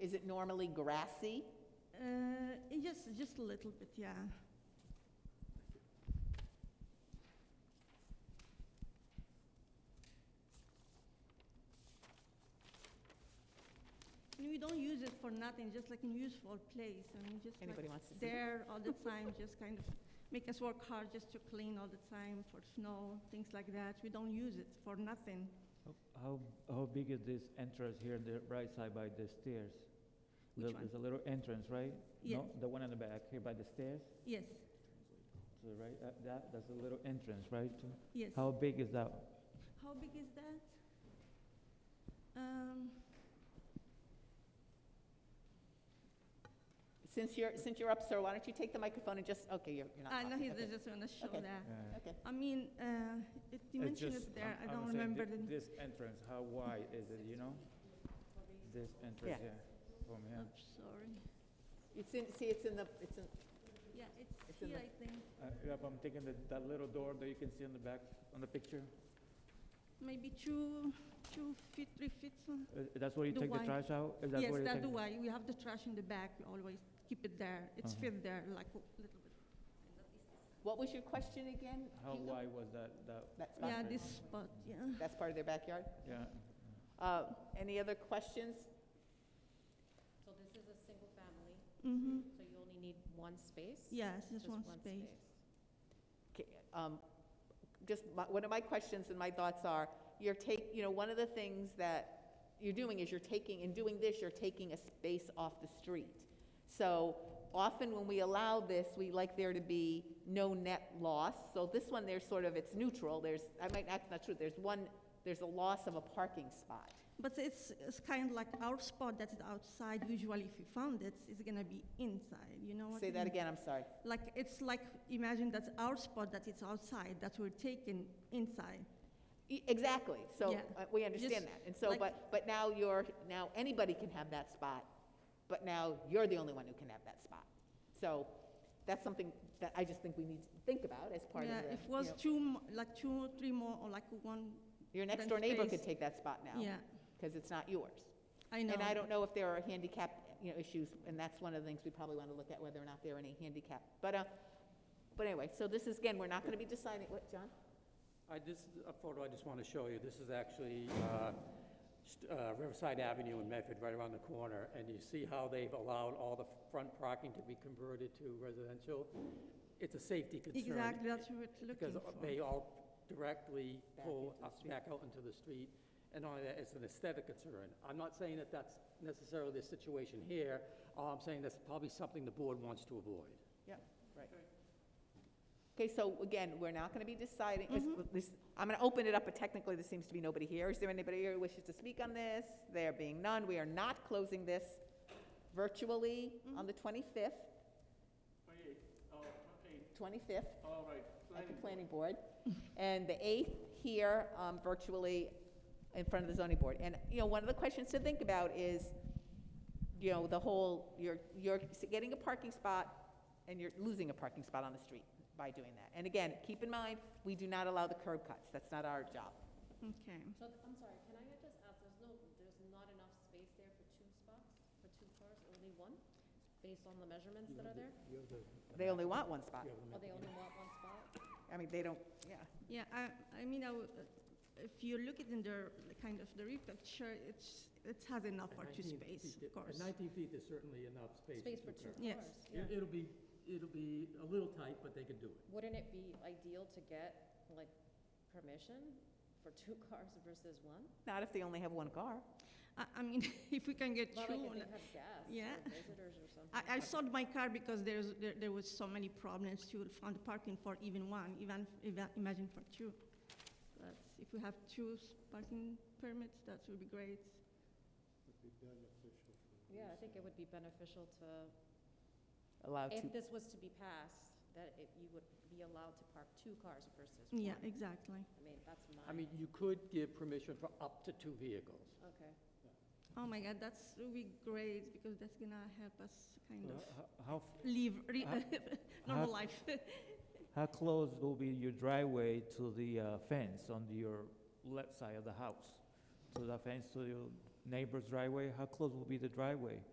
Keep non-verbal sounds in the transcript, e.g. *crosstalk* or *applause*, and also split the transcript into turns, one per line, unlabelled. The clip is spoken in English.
Is it normally grassy?
Uh, yes, just a little bit, yeah. And we don't use it for nothing, just like in useful place, and we just
Anybody
like
wants to see? it?
there all the time, just kind of make us work hard just to clean all the time for snow, things like that. We don't use it for nothing.
How- How, how big is this entrance here on the right side by the stairs?
Which
There-
one?
There's a little entrance, right? No,
Yes.
the one on the back here by the stairs,
Yes,
to the right, uh, that, that's a little entrance, right? to-
yes.
How big is that?
How big is that? Um,
Since you're, since you're up, sir, why don't you take the microphone and just, okay, you're, you're not
I know
talking.
Ah, Uh, he's
Okay.
just gonna show
Okay.
that.
Uh,
Okay.
I mean, uh, the
it's
dimension is
just-
there, I
I'm- I'm
don't
saying
remember
thi-
the,
This entrance, how wide is it, you know? This
Yeah.
entrance here, from here.
oops, sorry.
It's in, see, it's in the, it's in,
Yeah, it's
It's in
here,
the-
I think,
Uh, yeah, but I'm thinking that, that little door that you can see on the back, on the picture,
maybe two, two feet, three feet. some-
Uh, that's where you
The
take the
wide-
trash out? Is that
Yes,
where you
that's
take-
the way, we have the trash in the back, we always keep it there, it's
Uh-huh.
fit there, like a little bit.
what was your question again?
How
Hugo?
wide was that, that,
That's,
Yeah,
back-
Boundary.
this spot, yeah.
that's part of their backyard?
yeah?
Uh, Any other questions?
So this is a single family,
Mm-hmm,
so you only need one space?
yes, just one space.
Okay, um, Just, my- one of my questions and my thoughts are, you're take, you know, one of the things that you're doing is you're taking, in doing this, you're taking a space off the street. So often when we allow this, we like there to be no net loss. So this one, there's sort of, it's neutral, there's, I might, that's not true, there's one, there's a loss of a parking spot.
But it's, it's kind of like our spot that is outside, usually if you found it, it's gonna be inside, you know what Oh, I
Say that
mean?
again, I'm sorry.
Like, it's like, imagine that's our spot that it's outside, that we're taking inside.
E- Exactly, so
Yeah.
uh, we understand
Just
that. And so,
like-
but, but now you're, now anybody can have that spot, but now you're the only one who can have that spot. So that's something that I just think we need to think about as part of
Yeah,
the,
if
you
was
know,
two, mo- like two or three more, or like one,
your next
then
door neighbor
space-
could take that spot now,
yeah,
because it's not yours.
I know.
And I don't know if there are handicap, you know, issues, and that's one of the things we probably want to look at, whether or not there are any handicap. But, uh, but anyway, so this is, again, we're not going to be deciding, what, John?
I, this is a photo I just want to show you. This is actually uh, st- uh, Riverside Avenue in Medford, right around the corner. And you see how they've allowed all the front parking to be converted to residential? It's a safety concern.
Exactly, that's what we're looking
Because
for.
they all directly
Back
pull
into the
us
street.
back out into the street. And only that, it's an aesthetic concern. I'm not saying that that's necessarily the situation here. All I'm saying that's probably something the board wants to avoid.
Yep, right. Okay, so again, we're not going to be deciding, is- this, I'm going to open it up, but technically there seems to be nobody here. Is there anybody here who wishes to speak on this? There being none, we are not closing this virtually on the 25th,
Twenty-eight, oh, twenty-eight,
25th
all right.
at the
planning board.
Oh, planning board, and the 8th here um, virtually in front of the zoning board. And, you know, one of the questions to think about is, you know, the whole, you're, you're getting a parking spot and you're losing a parking spot on the street by doing that. And again, keep in mind, we do not allow the curb cuts, that's not our job.
Okay,
So, th- I'm sorry, can I just ask, there's no, there's not enough space there for two spots, for two cars, only one? Based on the measurements that are there?
They only want one spot.
Or they only want one spot?
I mean, they don't, yeah.
yeah, I, I mean, I w- uh, if you look at in the, the kind of the repicture, it's, it has enough for two space, of course.
Nineteen feet is certainly enough space.
Space for two
Yes.
cars?
It- It'll be, it'll be a little tight, but they can do it.
Wouldn't it be ideal to get, like, permission for two *laughs* cars versus one?
Not if they only have one car.
I, I mean, *laughs* if we can get
Not like
two,
if
like-
they have guests
yeah.
or visitors or something.
I, I sold my car because there's, there, there was so many problems to find parking for even one, even, even imagine for two. That's, if we have two s- parking permits, that would be great.
Yeah, I think it would be beneficial to
Allow two.
If this was to be passed, that it, you would be allowed to park two cars versus one.
Yeah, e exactly.
I mean, that's my.
I mean, you could give permission for up to two vehicles.
Okay.
Oh my God, that's really great because that's gonna help us kind
Uh,
of
ho- How, f-
live re-
how-
*laughs* normal life. *laughs*
how close will be your driveway to the uh, fence on your left side of the house? To the fence to your neighbor's driveway? How close will be the driveway?